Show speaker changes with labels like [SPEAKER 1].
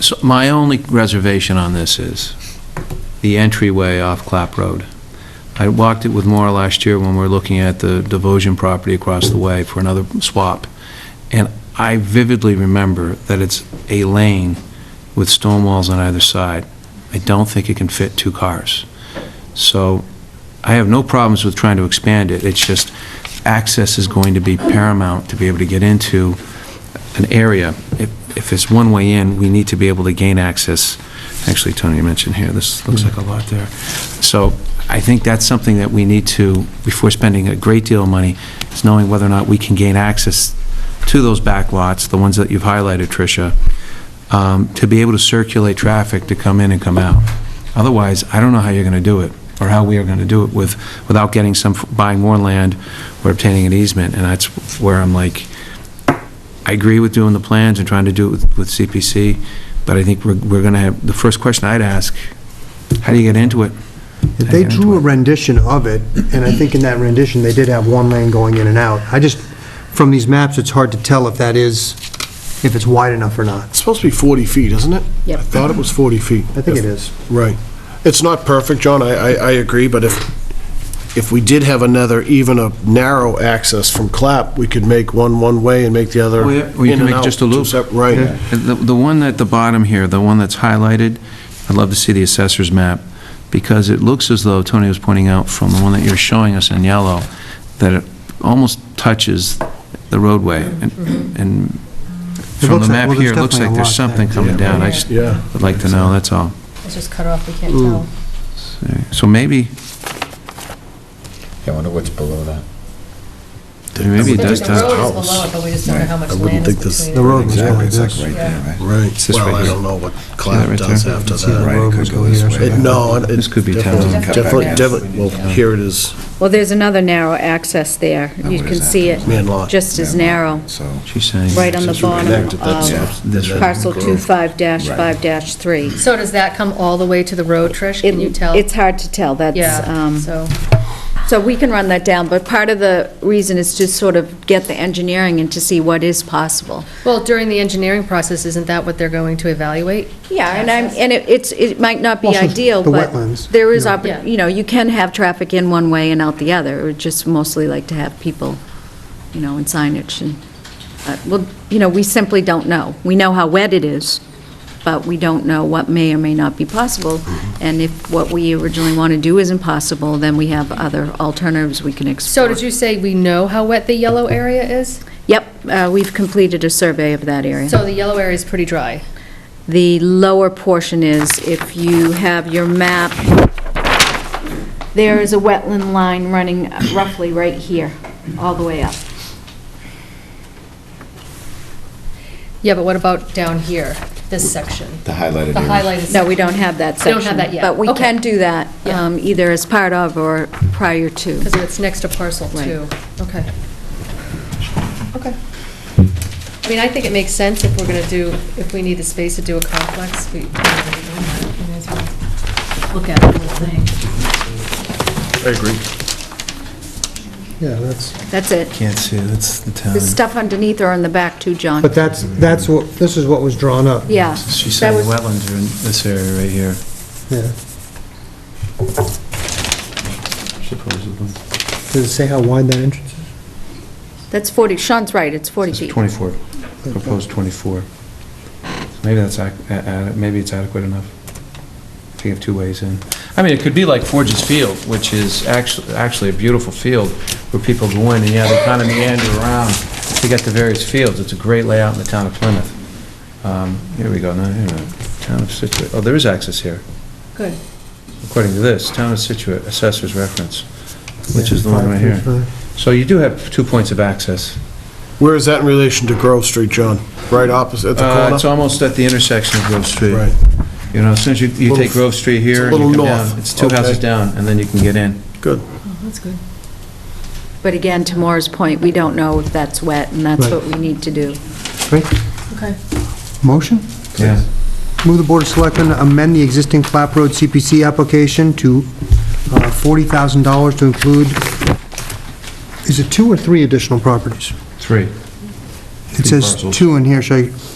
[SPEAKER 1] So my only reservation on this is the entryway off Clap Road. I walked it with Maura last year when we were looking at the Devotion property across the way for another swap, and I vividly remember that it's a lane with stone walls on either side. I don't think it can fit two cars. So I have no problems with trying to expand it, it's just access is going to be paramount to be able to get into an area. If if it's one way in, we need to be able to gain access. Actually, Tony, you mentioned here, this looks like a lot there. So I think that's something that we need to, before spending a great deal of money, is knowing whether or not we can gain access to those back lots, the ones that you've highlighted, Tricia, um, to be able to circulate traffic to come in and come out. Otherwise, I don't know how you're going to do it, or how we are going to do it with, without getting some, buying more land or obtaining an easement, and that's where I'm like, I agree with doing the plans and trying to do it with with CPC, but I think we're, we're going to have, the first question I'd ask, how do you get into it?
[SPEAKER 2] If They drew a rendition of it, and I think in that rendition, they did have one lane going in and out. I just, from these maps, it's hard to tell if that is, if it's wide enough or not.
[SPEAKER 3] It's supposed to be 40 feet, isn't it?
[SPEAKER 4] Yep.
[SPEAKER 3] I thought it was 40 feet.
[SPEAKER 2] I think it is.
[SPEAKER 3] Right. It's not perfect, John, I, I I agree, but if, if we did have another, even a narrow access from Clap, we could make one one-way and make the other
[SPEAKER 1] Or
[SPEAKER 3] in
[SPEAKER 1] you-
[SPEAKER 3] and out.
[SPEAKER 1] or you can make just a
[SPEAKER 3] two
[SPEAKER 1] loop.
[SPEAKER 3] sep- Right.
[SPEAKER 1] And The the one at the bottom here, the one that's highlighted, I'd love to see the assessor's map, because it looks as though, Tony was pointing out from the one that you're showing us in yellow, that it almost touches the roadway, and- and from the
[SPEAKER 2] looks like-
[SPEAKER 1] map
[SPEAKER 2] well, there's
[SPEAKER 1] here, it looks like
[SPEAKER 2] definitely a
[SPEAKER 1] there's
[SPEAKER 2] lot there.
[SPEAKER 1] something coming down. I just
[SPEAKER 3] Yeah.
[SPEAKER 1] would like to know, that's all.
[SPEAKER 4] It's just cut off, we can't tell.
[SPEAKER 1] So maybe,
[SPEAKER 5] I wonder what's below that.
[SPEAKER 1] maybe it
[SPEAKER 4] The road
[SPEAKER 1] does
[SPEAKER 4] is
[SPEAKER 1] touch.
[SPEAKER 4] below it, but we just don't know how much
[SPEAKER 3] I wouldn't
[SPEAKER 4] land
[SPEAKER 3] think
[SPEAKER 4] is
[SPEAKER 3] this-
[SPEAKER 2] The
[SPEAKER 4] between.
[SPEAKER 2] road was
[SPEAKER 5] Exactly,
[SPEAKER 2] like
[SPEAKER 5] it's like
[SPEAKER 2] this.
[SPEAKER 5] right there, right?
[SPEAKER 3] Right.
[SPEAKER 1] this
[SPEAKER 3] Well,
[SPEAKER 1] right
[SPEAKER 3] I
[SPEAKER 1] here.
[SPEAKER 3] don't know what
[SPEAKER 1] that
[SPEAKER 3] Clap
[SPEAKER 1] right
[SPEAKER 3] does
[SPEAKER 1] there?
[SPEAKER 3] after
[SPEAKER 2] See the
[SPEAKER 3] that.
[SPEAKER 2] road
[SPEAKER 5] Right, it
[SPEAKER 2] was
[SPEAKER 5] could
[SPEAKER 2] go
[SPEAKER 5] go this
[SPEAKER 2] here, so
[SPEAKER 5] way.
[SPEAKER 3] It-
[SPEAKER 2] that-
[SPEAKER 3] No, it...
[SPEAKER 1] This could be
[SPEAKER 3] definitely-
[SPEAKER 1] Townsend
[SPEAKER 4] Cut back
[SPEAKER 3] Definitely,
[SPEAKER 4] down.
[SPEAKER 3] definitely, well, here it is,
[SPEAKER 6] Well, there's another narrow access there. You
[SPEAKER 5] what
[SPEAKER 6] can
[SPEAKER 5] is that?
[SPEAKER 6] see it
[SPEAKER 3] man lot.
[SPEAKER 6] just as
[SPEAKER 5] Yeah,
[SPEAKER 6] narrow,
[SPEAKER 5] So,
[SPEAKER 1] She's saying.
[SPEAKER 6] right on the
[SPEAKER 3] Since we
[SPEAKER 6] bottom
[SPEAKER 3] connected, that's-
[SPEAKER 4] Um,
[SPEAKER 6] of
[SPEAKER 3] that's-
[SPEAKER 6] parcel
[SPEAKER 3] Grove.
[SPEAKER 6] 25-5-3.
[SPEAKER 4] So does that come all the way to the road, Trish? Can you
[SPEAKER 6] It-
[SPEAKER 4] tell?
[SPEAKER 6] It's hard to tell, that's,
[SPEAKER 4] Yeah,
[SPEAKER 6] um,
[SPEAKER 4] so,
[SPEAKER 6] so we can run that down, but part of the reason is to sort of get the engineering and to see what is possible.
[SPEAKER 4] well, during the engineering process, isn't that what they're going to evaluate?
[SPEAKER 6] Yeah, and I'm, and it- it's, it might not be
[SPEAKER 2] Also,
[SPEAKER 6] ideal,
[SPEAKER 2] the
[SPEAKER 6] but
[SPEAKER 2] wetlands,
[SPEAKER 6] there is,
[SPEAKER 2] you know.
[SPEAKER 6] oppor-
[SPEAKER 4] Yeah.
[SPEAKER 6] you know, you can have traffic in one way and out the other, or just mostly like to have people, you know, in signage and, uh, well, you know, we simply don't know. We know how wet it is, but we don't know what may or may not be possible,
[SPEAKER 2] Mm-hmm.
[SPEAKER 6] and if what we originally want to do isn't possible, then we have other alternatives we can
[SPEAKER 4] So
[SPEAKER 6] explore.
[SPEAKER 4] did you say we know how wet the yellow area is?
[SPEAKER 6] Yep, uh, we've completed a survey of that area.
[SPEAKER 4] So the yellow area is pretty dry.
[SPEAKER 6] The lower portion is, if you have your map, there is a wetland line running roughly right here, all the way up.
[SPEAKER 4] Yeah, but what about down here, this section?
[SPEAKER 5] the highlighted
[SPEAKER 4] The
[SPEAKER 5] area.
[SPEAKER 4] highlighted.
[SPEAKER 6] No, we don't have that
[SPEAKER 4] We
[SPEAKER 6] section.
[SPEAKER 4] don't have that yet.
[SPEAKER 6] But we
[SPEAKER 4] Okay.
[SPEAKER 6] can do that,
[SPEAKER 4] Yeah.
[SPEAKER 6] um, either as part of or prior to.
[SPEAKER 4] Because it's next to parcel
[SPEAKER 6] Right.
[SPEAKER 4] two. Okay. Okay. I mean, I think it makes sense if we're going to do, if we need the space to do a complex, we we may as well look at the whole thing.
[SPEAKER 3] I agree.
[SPEAKER 2] Yeah, that's,
[SPEAKER 6] That's it.
[SPEAKER 5] Can't see, that's the town.
[SPEAKER 1] uh,
[SPEAKER 6] The stuff underneath are in the back too, John.
[SPEAKER 2] but that's, that's what, this is what was drawn up.
[SPEAKER 6] Yeah.
[SPEAKER 5] She
[SPEAKER 6] that
[SPEAKER 5] said the
[SPEAKER 6] was-
[SPEAKER 5] wetlands are in this area right here.
[SPEAKER 2] Yeah. Does it say how wide that entrance is?
[SPEAKER 6] That's 40, Sean's right, it's 40 feet.
[SPEAKER 1] 24, proposed 24. Maybe that's, ac- a- a- maybe it's adequate enough. If you have two ways in. I mean, it could be like Forges Field, which is actually, actually a beautiful field where people go in and, yeah, they kind of meander around to get to various fields. It's a great layout in the town of Plymouth. Um, Here we go, no, here, no, town of Situate, oh, there is access here.
[SPEAKER 4] Good.
[SPEAKER 1] According to this, town of Situate, assessor's reference, which is the one right here. So you do have two points of access.
[SPEAKER 3] Where is that in relation to Grove Street, John? Right opposite, at the
[SPEAKER 1] Uh,
[SPEAKER 3] corner?
[SPEAKER 1] It's almost at the intersection of Grove Street.
[SPEAKER 3] Right.
[SPEAKER 1] You know, as soon as you, you
[SPEAKER 3] Little-
[SPEAKER 1] take Grove Street here.
[SPEAKER 3] it's a
[SPEAKER 1] and you
[SPEAKER 3] little
[SPEAKER 1] come down,
[SPEAKER 3] north.
[SPEAKER 1] It's two
[SPEAKER 3] Okay.
[SPEAKER 1] houses down, and then you can get in.
[SPEAKER 3] Good.
[SPEAKER 4] That's good.
[SPEAKER 6] But again, to Maura's point, we don't know if that's wet, and that's
[SPEAKER 2] Right.
[SPEAKER 6] what we need to do.
[SPEAKER 2] Great.
[SPEAKER 4] Okay.
[SPEAKER 2] Motion?
[SPEAKER 1] Yeah.
[SPEAKER 2] Move the Board of Selectmen amend the existing Clap Road CPC application to uh, $40,000 to include, is it two or three additional properties?
[SPEAKER 1] Three.
[SPEAKER 2] It says
[SPEAKER 1] parcels.
[SPEAKER 2] two in here, should I